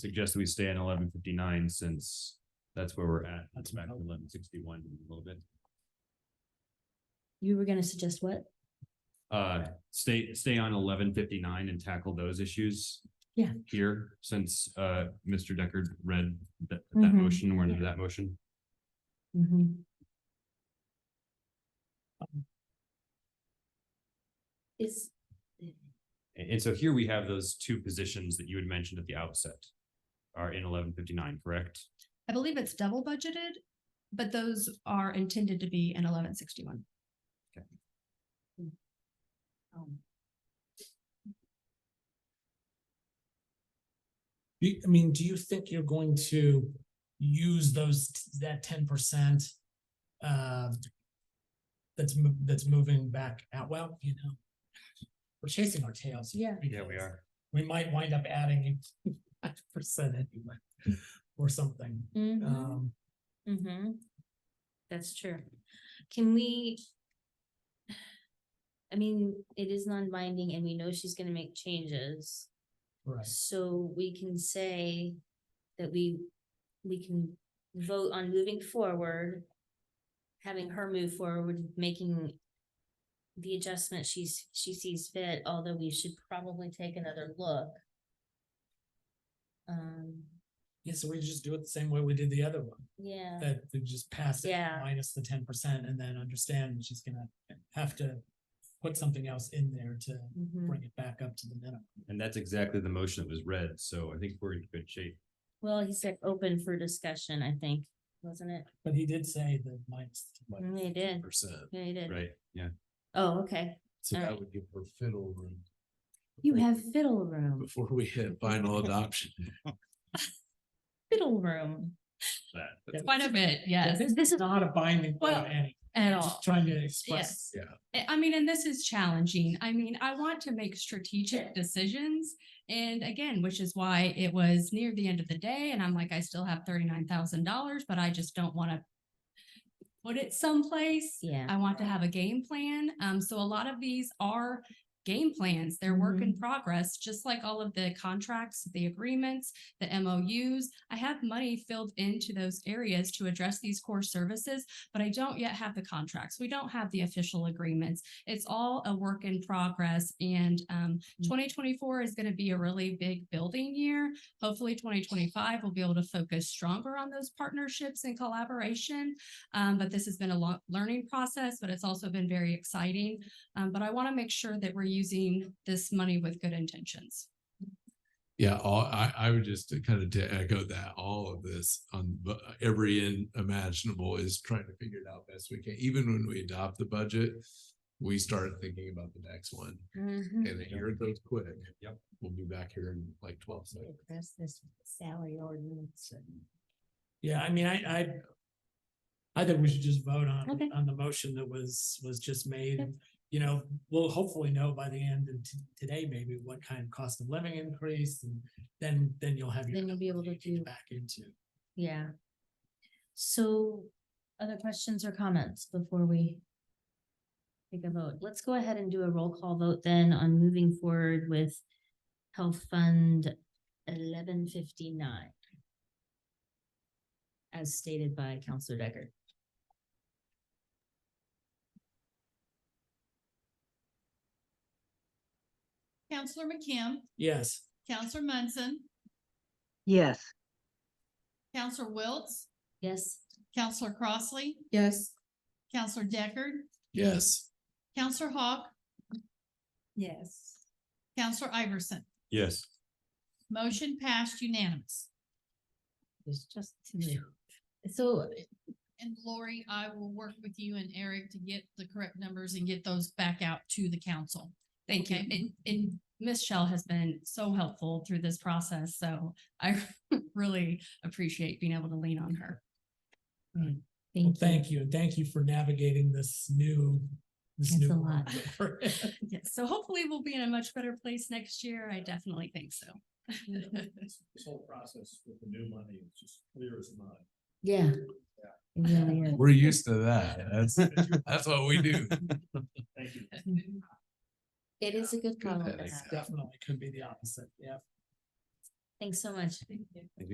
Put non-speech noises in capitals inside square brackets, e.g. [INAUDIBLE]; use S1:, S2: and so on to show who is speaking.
S1: suggest we stay at eleven fifty-nine since that's where we're at. That's back to eleven sixty-one a little bit.
S2: You were gonna suggest what?
S1: Uh, stay, stay on eleven fifty-nine and tackle those issues.
S2: Yeah.
S1: Here, since uh, Mr. Deckard read that, that
S2: Mhm.
S1: motion, we're under that motion.
S3: Mm-hmm.
S2: Is,
S1: And, and so here we have those two positions that you had mentioned at the outset are in eleven fifty-nine, correct?
S4: I believe it's double budgeted, but those are intended to be in eleven sixty-one.
S2: um,
S3: Do you- I mean, do you think you're going to use those, that ten percent? Uh, that's, mo- that's moving back out, well, you know, we're chasing our tails.
S2: Yeah.
S3: because We might wind up adding [LAUGHS] five percent anyway, or something. Um,
S2: Mm-hmm. That's true. Can we? I mean, it is non-binding and we know she's gonna make changes,
S3: right,
S2: so we can say that we, we can vote on moving forward. Having her move forward, making the adjustment she's, she sees fit, although we should probably take another look. Um,
S3: yeah, so we just do it the same way we did the other one,
S2: yeah.
S3: that we just pass it
S2: Yeah.
S3: minus the ten percent and then understand she's gonna have to put something else in there to
S2: mhm.
S3: bring it back up to the minimum.
S1: And that's exactly the motion that was read, so I think we're in good shape.
S2: Well, he said open for discussion, I think, wasn't it?
S3: But he did say the minus.
S2: Mm, They did,
S5: percent,
S2: yeah, he did.
S1: Right, yeah.
S2: Oh, okay.
S5: so
S2: All
S5: that
S2: right.
S5: would give her fiddle room
S2: You have fiddle room,
S5: before we hit final adoption.
S2: [LAUGHS] fiddle room.
S1: That,
S3: Yeah.
S4: Quite a bit, yes,
S3: This is not a binding. vote,
S4: Well,
S3: Annie.
S4: at
S3: I'm
S4: all.
S3: just Trying to express.
S4: Yes. I- I mean, and this is challenging. I mean, I want to make strategic decisions. And again, which is why it was near the end of the day and I'm like, I still have thirty-nine thousand dollars, but I just don't want to put it someplace.
S2: Yeah,
S4: I want to have a game plan. Um, so a lot of these are game plans. They're work in progress, just like all of the contracts, the agreements, the MOUs. I have money filled into those areas to address these core services, but I don't yet have the contracts. We don't have the official agreements. It's all a work in progress and um,
S2: Mhm.
S4: 2024 is going to be a really big building year. Hopefully 2025 will be able to focus stronger on those partnerships and collaboration. Um, but this has been a long learning process, but it's also been very exciting. Um, but I want to make sure that we're using this money with good intentions.
S5: Yeah, all, I, I would just kind of to echo that, all of this on bu- uh, every end imaginable is trying to figure it out best we can. Even when we adopt the budget, we start thinking about the next one
S2: Mhm.
S5: and here it goes quick.
S1: Yep.
S5: We'll be back here in like twelve seconds.
S2: Address this salary ordinance.
S3: Yeah, I mean, I, I. I think we should just vote
S2: Okay.
S3: on, on the motion that was, was just made.
S2: Yep.
S3: You know, we'll hopefully know by the end of t- today, maybe what kind of cost of living increase and then, then you'll have. your
S2: Then you'll be able to
S3: opportunity
S2: do-
S3: Back into.
S2: Yeah. So, other questions or comments before we take a vote? Let's go ahead and do a roll call vote then on moving forward with Health Fund eleven fifty-nine. As stated by Counselor Deckard.
S6: Counselor McKim,
S3: Yes,
S6: Counselor Munson,
S7: Yes,
S6: Counselor Wiltz,
S2: Yes?
S6: Counselor Crossley,
S4: Yes.
S6: Counselor Deckard,
S5: Yes.
S6: Counselor Hawk,
S4: Yes.
S6: Counselor Iverson.
S1: Yes.
S6: Motion passed unanimous.
S2: There's just two. So
S6: And Lori, I will work with you and Eric to get the correct numbers and get those back out to the council.
S4: Thank you. And, and Ms. Shell has been so helpful through this process. So I [LAUGHS] really appreciate being able to lean on her.
S3: well,
S2: thank you.
S3: thank you. and Thank you for navigating this new. this
S2: It's
S3: new
S2: a
S3: world
S2: lot.
S3: that we're in.
S4: Yes. So hopefully we'll be in a much better place next year. I definitely think so.
S8: this whole process with the new money is just clear as mud.
S2: Yeah. [LAUGHS] It really is.
S5: We're used to that. That's, [LAUGHS] that's what we do.
S8: Thank you.
S2: It is a good problem. to
S5: Thanks.
S2: have.
S3: Definitely could be the opposite, yeah.
S9: Thanks so much.
S2: Thank you.